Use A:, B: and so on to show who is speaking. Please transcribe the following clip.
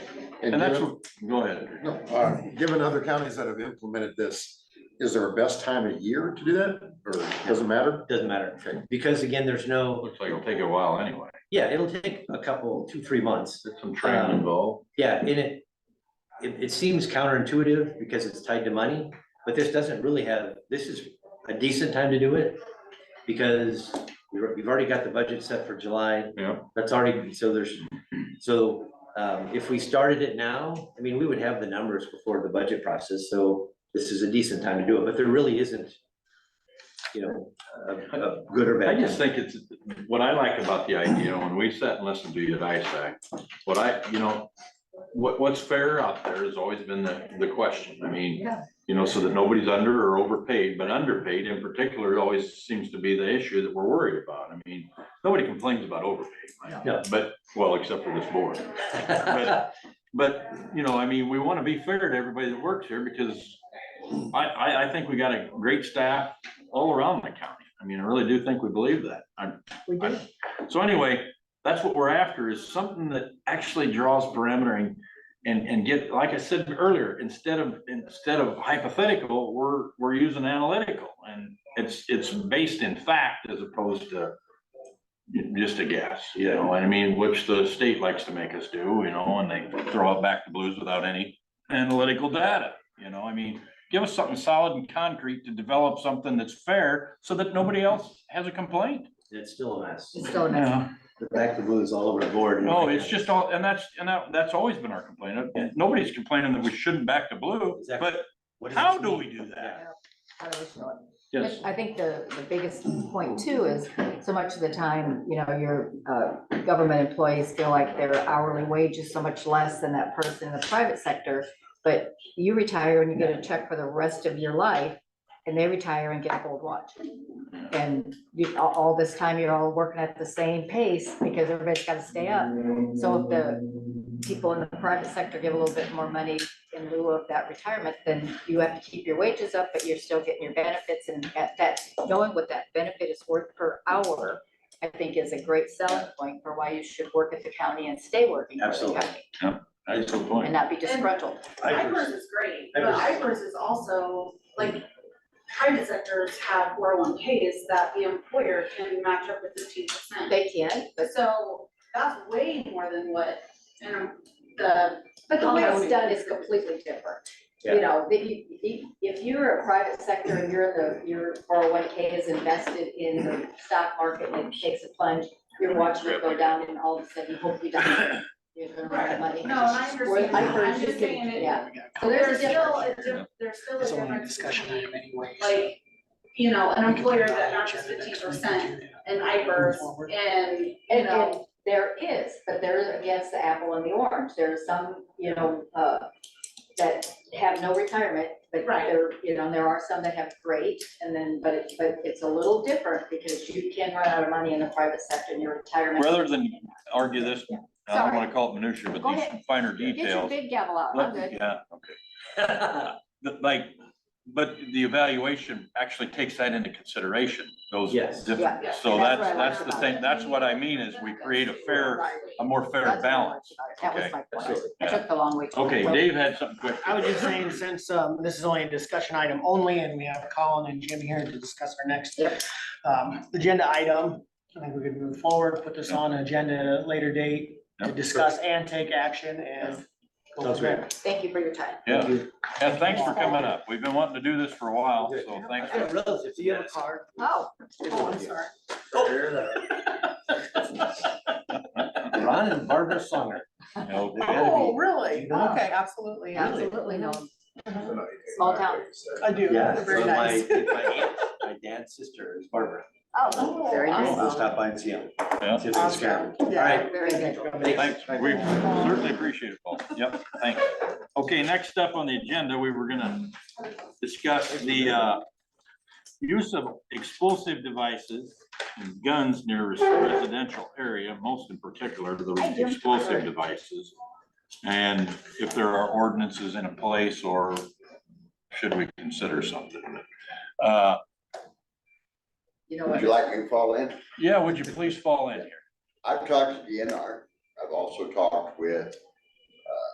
A: And
B: And that's,
A: given-
B: what- go ahead. Andrea.
A: no, uh, Given other counties that have implemented this, is there a best time of year to do that, or doesn't matter?
C: doesn't matter,
A: Okay.
C: because again, there's no,
B: Looks like it'll take a while anyway.
C: yeah, it'll take a couple, two, three months.
B: There's some training involved.
C: Yeah, and it, it, it seems counterintuitive because it's tied to money, but this doesn't really have, this is a decent time to do it. Because you're- you've already got the budget set for July.
B: Yeah.
C: That's already, so there's, so, um, if we started it now, I mean, we would have the numbers before the budget process, so this is a decent time to do it, but there really isn't. You know, a, a good or
B: I
C: bad.
B: just
C: time.
B: think it's, what I like about the idea, when we sat and listened to you at ISAC, what I, you know, what, what's fair out there has always been the, the question. I mean,
D: Yeah.
B: you know, so that nobody's under or overpaid, but underpaid in particular always seems to be the issue that we're worried about. I mean, nobody complains about overpaid. right?
C: No.
B: But, well, except for this board. but- But, you know, I mean, we want to be fair to everybody that works here because I, I, I think we got a great staff all around the county. I mean, I really do think we believe that. I,
D: We do.
B: I- so anyway, that's what we're after is something that actually draws parametering and, and get, like I said earlier, instead of, instead of hypothetical, we're, we're using analytical. And it's, it's based in fact as opposed to just a guess, you know, and I mean, which the state likes to make us do, you know, and they throw it back to blues without any analytical data, you know, I mean, give us something solid and concrete to develop something that's fair so that nobody else has a complaint.
C: It's still a mess.
D: It's so nice.
B: Yeah,
C: The back to blues all over the board.
B: no, Oh, it's just all, and that's, and that, that's always been our complaint. And Nobody's complaining that we shouldn't back to blue,
C: Exactly.
B: but
C: What does
B: how
C: this
B: do
C: mean?
B: we do that?
D: I always know it.
B: Yes,
D: I think the, the biggest point too is so much of the time, you know, your, uh, government employees feel like their hourly wage is so much less than that person in the private sector. But you retire and you get a check for the rest of your life and they retire and get a gold watch. And you, all, all this time, you're all working at the same pace because everybody's gotta stay up. So if the people in the private sector give a little bit more money in lieu of that retirement, then you have to keep your wages up, but you're still getting your benefits and at that, knowing what that benefit is worth per hour, I think is a great selling point for why you should work at the county and stay working for the
C: Absolutely.
D: county
B: that's the
D: and
B: point.
D: not be disgruntled.
E: IFRS is great, but IFRS is also, like, private sectors have four oh one Ks that the employer can match up with fifteen percent.
D: They can, but,
E: So that's way more than what, you know, the,
D: but the way it's done is completely different.
C: Yeah.
D: You know, that you, if, if you're a private sector and you're in the, your four oh one K is invested in the stock market and it takes a plunge, you're watching it go down and all of a sudden, you hope you don't. You're gonna run out of money.
E: no, and I
D: Where
E: understand, that.
D: IFRS
E: I'm
D: is
E: just saying
D: getting-
E: it,
D: Yeah, so
E: there's
D: there's a
E: still
D: difference.
E: a diff, there's still a
F: It's only a
E: difference
F: discussion
E: between,
F: item anyways.
E: like, you know, an
F: We can
E: employer
F: put it
E: that
F: on the
E: matches
F: agenda
E: fifteen
F: next
E: percent
F: week and do that.
E: and IFRS
F: Forward.
E: and, you
D: And, and
E: know,
D: there is, but there is against the apple and the orange, there are some, you know, uh, that have no retirement, but
E: Right.
D: there, you know, there are some that have great, and then, but it, but it's a little different because you can run out of money in the private sector in your retirement.
B: Rather than argue this, I don't want to call it minutia,
D: Go
B: but these
D: ahead.
B: finer
D: Get your
B: details.
D: big gavel out,
B: Let-
D: I'm good.
B: Yeah, okay. The- Like, but the evaluation actually takes that into consideration, those.
C: Yes.
B: different-
D: Yeah,
E: yeah,
B: So that's,
D: that's what I
B: that's
D: like
B: the
D: about
B: thing,
E: it.
B: that's what I mean is we create a fair,
E: Right.
B: a more fair
D: That's what I liked
B: balance.
D: about it.
B: Okay,
D: That was my point,
C: absolutely,
D: I
B: yeah.
D: took the long way. to go.
B: Okay, Dave had something quick.
F: I was just saying, since um, this is only a discussion item only, and we have Colin and Jim here to discuss our next
D: Yep.
F: um, agenda item, I think we could move forward, put this on agenda at a later date to
B: Yep.
F: discuss and take action and. go
C: Sounds
F: from there.
D: Thank you for your time.
B: Yeah,
C: Thank you.
B: and thanks for coming up. We've been wanting to do this for a while, so
C: I
B: thanks. for-
C: got relatives, do you have a card?
D: Oh,
E: Oh, I'm sorry.
C: Ron and Barbara Songer.
B: No,
G: Oh, really?
C: Yeah.
G: Okay, absolutely.
D: absolutely, no,
A: Small
D: town.
G: I do.
C: Yeah,
G: Very
C: so my,
G: nice.
C: my aunt, my dad's sister is Barbara.
D: oh, very
C: So We'll
D: nice.
C: stop by and see him.
B: Yeah.
C: See if he's around.
G: Yeah.
C: All right.
D: Very good.
B: Thanks, we certainly appreciate it, Paul. Yep, thanks. Okay, next up on the agenda, we were gonna discuss the uh, use of explosive devices and guns near residential area, most in particular the explosive devices. And if there are ordinances in place or should we consider something? Uh,
D: You know
H: Would
D: what?
H: you like me to fall in?
B: Yeah, would you please fall in here?
H: I've talked to DNR. I've also talked with